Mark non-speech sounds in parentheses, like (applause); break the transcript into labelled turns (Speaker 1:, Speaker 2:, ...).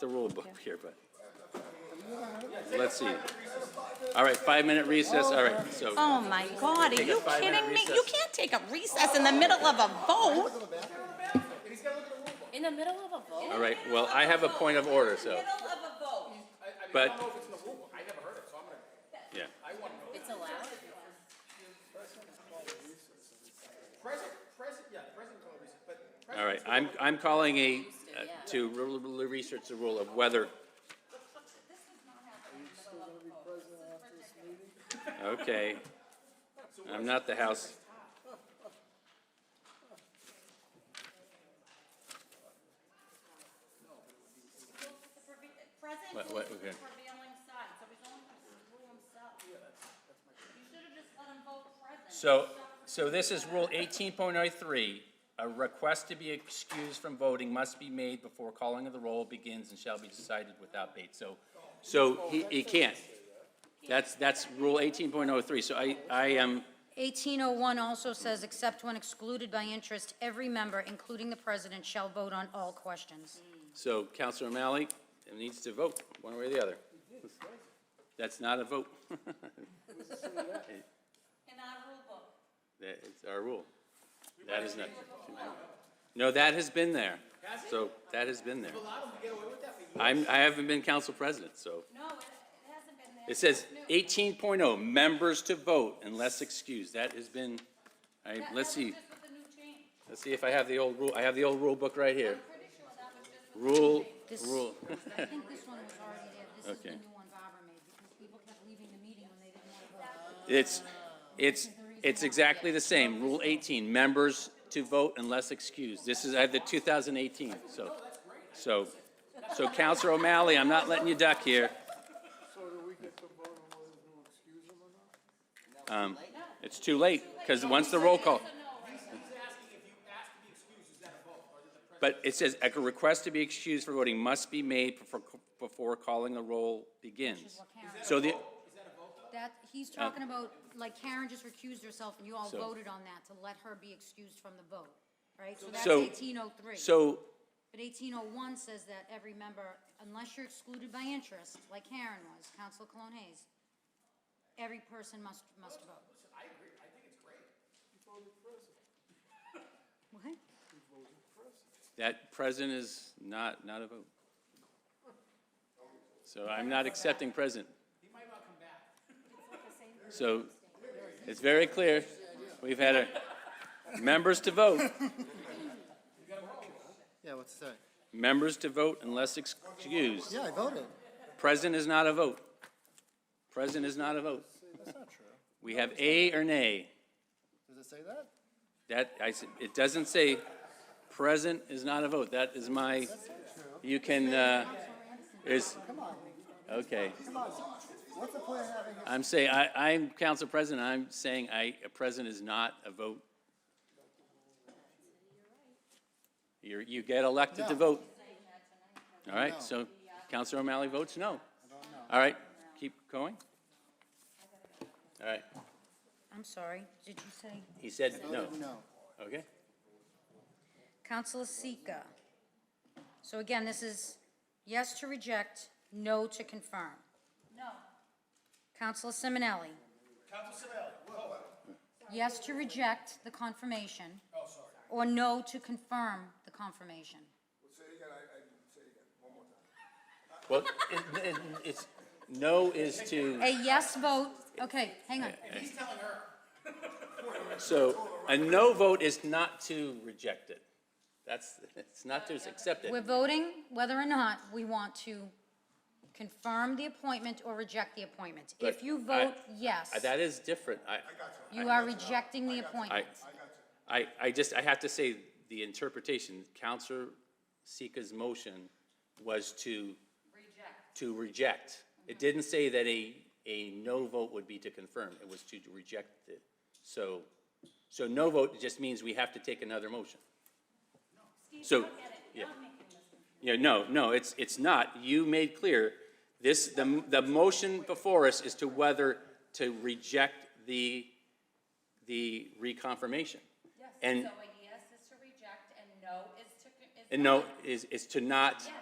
Speaker 1: the rule book here, but. Let's see. All right, five-minute recess, all right, so.
Speaker 2: Oh my God, are
Speaker 1: Take a
Speaker 2: you
Speaker 1: five-minute
Speaker 2: kidding me? You
Speaker 1: recess.
Speaker 2: can't take a recess in the middle of a vote.
Speaker 3: In the middle of a vote?
Speaker 1: All right, well, I have a point of order, so, but. I don't know if it's in the rule book, I never heard it, so I'm gonna. Yeah.
Speaker 3: It's allowed?
Speaker 1: All right, I'm, I'm calling a, uh, to re- re- research the rule of whether. Okay. I'm not the House. What- what- okay. So, so this is Rule eighteen point oh three. A request to be excused from voting must be made before calling of the roll begins and shall be decided without debate. So, so he, he can't. That's, that's Rule eighteen point oh three. So I, I am,
Speaker 4: 1801 also says, except when excluded by interest, every member, including the president, shall vote on all questions.
Speaker 1: so Counselor O'Malley needs to vote, one way or the other. That's not a vote. That is our rule. That is not. No, that has been there. So that has been there. I'm, I haven't been council president, so.
Speaker 2: No, it it hasn't been there.
Speaker 1: It says eighteen oh, members to vote unless excused. That has been, all right,
Speaker 2: That-
Speaker 1: let's
Speaker 2: that was
Speaker 1: see.
Speaker 2: just with the new change.
Speaker 1: Let's see if I have the old rule. I have the old rule book right here.
Speaker 2: I'm pretty sure that was just with the
Speaker 1: Rule,
Speaker 4: This-
Speaker 1: rule. (laughs)
Speaker 4: I think this one was already there. This is the
Speaker 1: Okay.
Speaker 4: new one Barbara made, because people kept leaving the meeting when they didn't want to vote.
Speaker 1: It's, it's, it's exactly the same. Rule eighteen, members to vote unless excused. This is, I had the two thousand eighteen, so, so, so Counselor O'Malley, I'm not letting you duck here.
Speaker 5: So do we get to vote on whether to excuse him or not?
Speaker 1: Um, it's too late, because once the roll call. But it says, a request to be excused for voting must be made before, before calling the roll begins. So the,
Speaker 4: That, he's talking about, like Karen just recused herself, and you all
Speaker 1: Oh. So-
Speaker 4: voted on that to let her be excused from the vote, right? So that's
Speaker 1: So-
Speaker 4: 1803.
Speaker 1: so,
Speaker 4: But 1801 says that every member, unless you're excluded by interest, like Karen was, Council Cologne Hayes, every person must, must vote. (laughs) What?
Speaker 1: that present is not, not a vote. So I'm not accepting present. (laughs) So, it's very clear, we've had a, members to vote.
Speaker 5: Yeah, what's that?
Speaker 1: Members to vote unless excused.
Speaker 5: Yeah, I voted.
Speaker 1: Present is not a vote. Present is not a vote.
Speaker 5: That's not true.
Speaker 1: We have a or nay.
Speaker 5: Does it say that?
Speaker 1: That, I, s- it doesn't say present is not a vote. That is my, you can, uh, is, okay.
Speaker 5: What's the point of having it?
Speaker 1: I'm saying, I, I'm council president. I'm saying I, a present is not a vote. You're, you get elected to
Speaker 5: No.
Speaker 1: vote. All right, so Counselor O'Malley votes no. All right, keep going. All right,
Speaker 4: I'm sorry, did you say?
Speaker 1: he said no.
Speaker 5: No.
Speaker 1: Okay,
Speaker 4: Councilor Sika. So again, this is yes to reject, no to confirm. No. Councilor Simonelli. Yes to reject the confirmation. Oh, sorry. Or no to confirm the confirmation.
Speaker 1: well, it, it, it's, no is to,
Speaker 4: A yes vote, okay, hang on.
Speaker 1: so, a no vote is not to reject it. That's, it's not to accept
Speaker 4: We're
Speaker 1: it.
Speaker 4: voting whether or not we want to confirm the appointment or reject the appointment. If
Speaker 1: But
Speaker 4: you
Speaker 1: I-
Speaker 4: vote yes,
Speaker 1: I- That is different, I.
Speaker 4: you are rejecting the
Speaker 1: I,
Speaker 4: appointment.
Speaker 1: I, I just, I have to say, the interpretation, Counselor Sika's motion was to. Reject. To reject. It didn't say that a, a no vote would be to confirm, it was to reject it. So, so no vote just means we have to take another motion. So, yeah. Yeah, no, no, it's, it's not. You made clear, this, the, the motion before us is to whether to reject the, the reconfirmation.
Speaker 3: Yes.
Speaker 1: And,
Speaker 3: So a yes is to reject and no is to. is
Speaker 1: and no, is, is to not,
Speaker 3: Yeah.